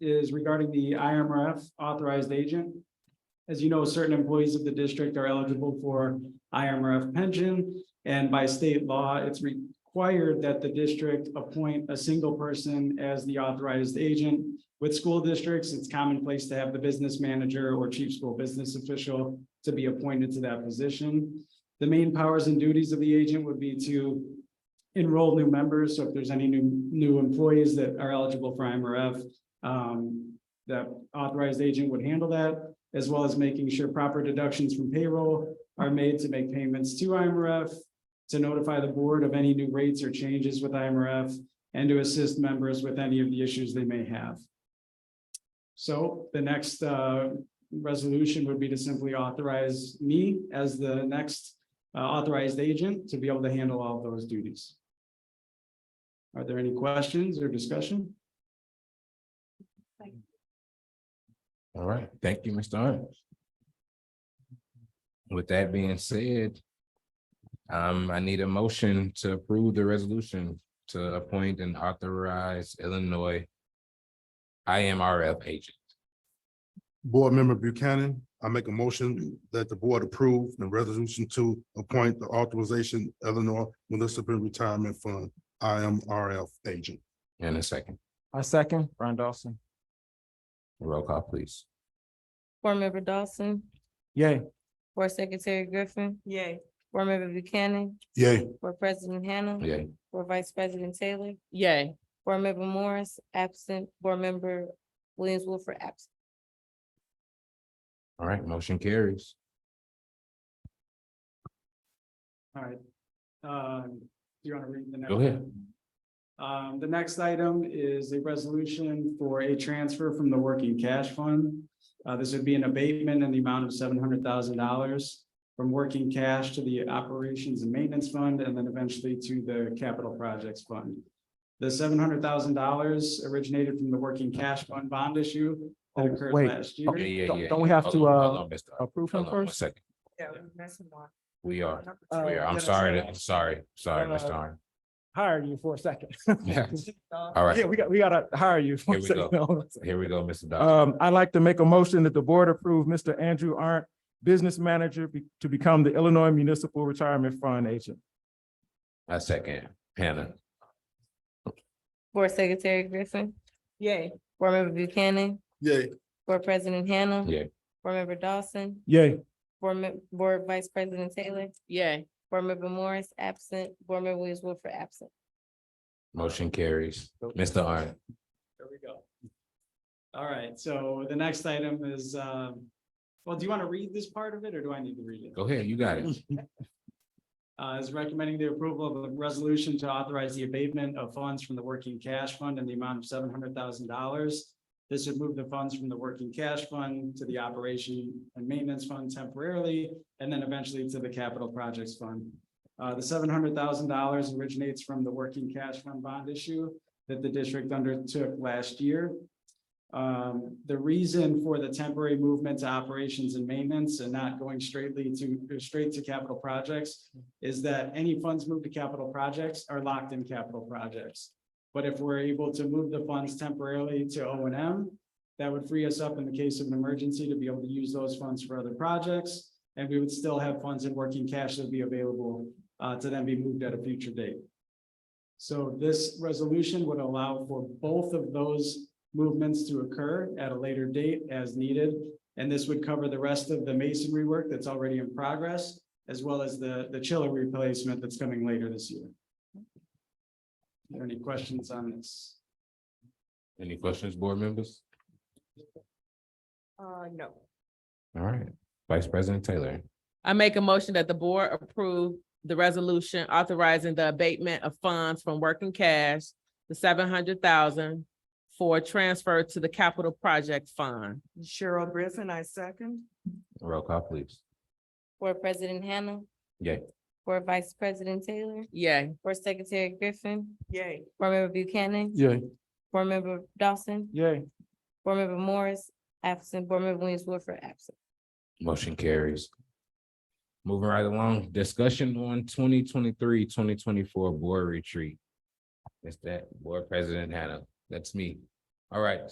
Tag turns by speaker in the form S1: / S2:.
S1: is regarding the IMRF authorized agent. As you know, certain employees of the district are eligible for IMRF pension, and by state law, it's required that the district appoint a single person as the authorized agent. With school districts, it's commonplace to have the business manager or chief school business official to be appointed to that position. The main powers and duties of the agent would be to enroll new members, so if there's any new, new employees that are eligible for IMRF, um, that authorized agent would handle that, as well as making sure proper deductions from payroll are made to make payments to IMRF, to notify the board of any new rates or changes with IMRF, and to assist members with any of the issues they may have. So the next, uh, resolution would be to simply authorize me as the next uh, authorized agent to be able to handle all of those duties. Are there any questions or discussion?
S2: All right, thank you, Mr. Owens. With that being said, um, I need a motion to approve the resolution to appoint and authorize Illinois IMRF agent.
S3: Board Member Buchanan, I make a motion that the board approve the resolution to appoint the authorization Illinois Municipal Retirement Fund, IMRF agent.
S2: In a second,
S4: I second, Ron Dawson.
S2: roll call, please.
S5: Board Member Dawson,
S4: Yay.
S5: Board Secretary Griffin,
S6: Yay.
S5: Board Member Buchanan,
S3: Yay.
S5: Board President Hannah.
S2: Yeah,
S5: Board Vice President Taylor,
S6: Yay.
S5: Board Member Morris, absent, Board Member Williams Wilford, absent.
S2: all right, motion carries.
S1: All right. Uh, Do you want to read the next?
S2: Go ahead.
S1: one? Um, the next item is a resolution for a transfer from the working cash fund. Uh, this would be an abatement in the amount of seven hundred thousand dollars from working cash to the operations and maintenance fund and then eventually to the capital projects fund. The seven hundred thousand dollars originated from the working cash fund bond issue that
S4: Oh,
S1: occurred
S4: wait.
S1: last
S2: Yeah,
S1: year.
S2: yeah,
S4: Don't-
S2: yeah,
S4: don't we
S2: yeah.
S4: have
S2: Hold
S4: to,
S2: on,
S4: uh,
S2: hold on, Mr. Owens.
S4: Approve him
S2: Hold on one
S4: first.
S2: second.
S6: Yeah, we're missing one.
S2: We are,
S6: Number
S4: Uh,
S2: we
S6: two.
S2: are, I'm
S6: Number
S2: sorry,
S6: two.
S2: I'm sorry, sorry,
S4: Uh,
S2: Mr. Owens.
S4: Hire you for a second.
S2: Yeah.
S6: Uh,
S2: All
S4: Yeah,
S2: right,
S4: we got, we gotta hire you. for a
S2: Here we
S4: second.
S2: here we go, Mr. Dawson.
S4: Um, I'd like to make a motion that the board approve Mr. Andrew Arndt, business manager, be- to become the Illinois Municipal Retirement Fund agent. uh,
S2: I second, Hannah,
S5: Board Secretary Griffin,
S6: Yay.
S5: Board Member Buchanan,
S3: Yay.
S5: Board President Hannah.
S2: Yeah.
S5: Board Member Dawson,
S4: Yay.
S5: Board Mem- Board Vice President Taylor,
S6: Yay.
S5: Board Member Morris, absent, Board Member Williams Wilford, absent.
S2: motion carries. Mr. Owens.
S1: There we go. All right, so the next item is, um, well, do you want to read this part of it or do I need to read it?
S2: Go ahead, you got it.
S1: Uh, is recommending the approval of a resolution to authorize the abatement of funds from the working cash fund in the amount of seven hundred thousand dollars. This would move the funds from the working cash fund to the operation and maintenance fund temporarily, and then eventually to the capital projects fund. Uh, the seven hundred thousand dollars originates from the working cash fund bond issue that the district undertook last year. Um, the reason for the temporary movement to operations and maintenance and not going straightly to, straight to capital projects is that any funds moved to capital projects are locked in capital projects. But if we're able to move the funds temporarily to O and M, that would free us up in the case of an emergency to be able to use those funds for other projects. And we would still have funds in working cash that would be available uh, to then be moved at a future date. So this resolution would allow for both of those movements to occur at a later date as needed. And this would cover the rest of the masonry work that's already in progress as well as the, the chiller replacement that's coming later this year. Are there any questions on this?
S2: Any questions, board members?
S6: Uh, no.
S2: All right, Vice President Taylor,
S7: I make a motion that the board approve the resolution authorizing the abatement of funds from working cash, the seven hundred thousand for transfer to the capital project fund.
S6: Cheryl Griffin, I second.
S2: roll call, please.
S5: Board President Hannah.
S2: Yay.
S5: Board Vice President Taylor,
S7: Yay.
S5: Board Secretary Griffin,
S6: Yay.
S5: Board Member Buchanan,
S4: Yay.
S5: Board Member Dawson,
S4: Yay.
S5: Board Member Morris, absent, Board Member Williams Wilford, absent.
S2: Motion carries. Moving right along, discussion on 2023-2024 board retreat. Is that board president Hannah? That's me. All right,